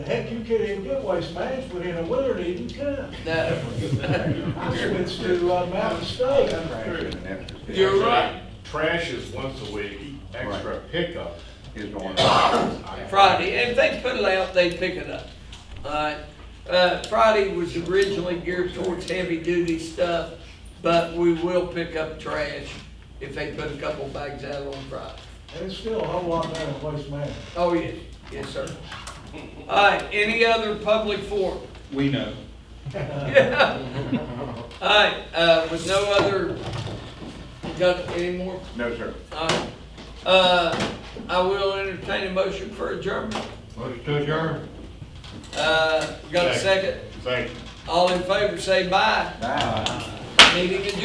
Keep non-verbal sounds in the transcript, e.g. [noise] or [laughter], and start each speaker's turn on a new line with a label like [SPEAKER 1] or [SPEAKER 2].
[SPEAKER 1] Heck, you could even get waste management in a winter to even come.
[SPEAKER 2] No.
[SPEAKER 1] I switched to uh, Mountain State.
[SPEAKER 2] You're right.
[SPEAKER 3] Trash is once a week, extra pickup.
[SPEAKER 4] Is going
[SPEAKER 2] Friday, if they put it out, they pick it up. Alright, uh, Friday was originally geared towards heavy duty stuff, but we will pick up trash if they put a couple bags out on Friday.
[SPEAKER 1] And it's still a whole lot better than waste management.
[SPEAKER 2] Oh, yes, yes, sir. Alright, any other public forum?
[SPEAKER 5] We
[SPEAKER 2] [laughs]
[SPEAKER 5] know.
[SPEAKER 2] Alright, uh, with no other, you got any more?
[SPEAKER 4] No, sir.
[SPEAKER 2] Alright, uh, I will entertain a motion for adjournment.
[SPEAKER 4] Motion to adjourn.
[SPEAKER 2] Uh, got a second?
[SPEAKER 3] Thank you.
[SPEAKER 2] All in favor, say bye.
[SPEAKER 4] Bye.
[SPEAKER 2] Meeting adjourned.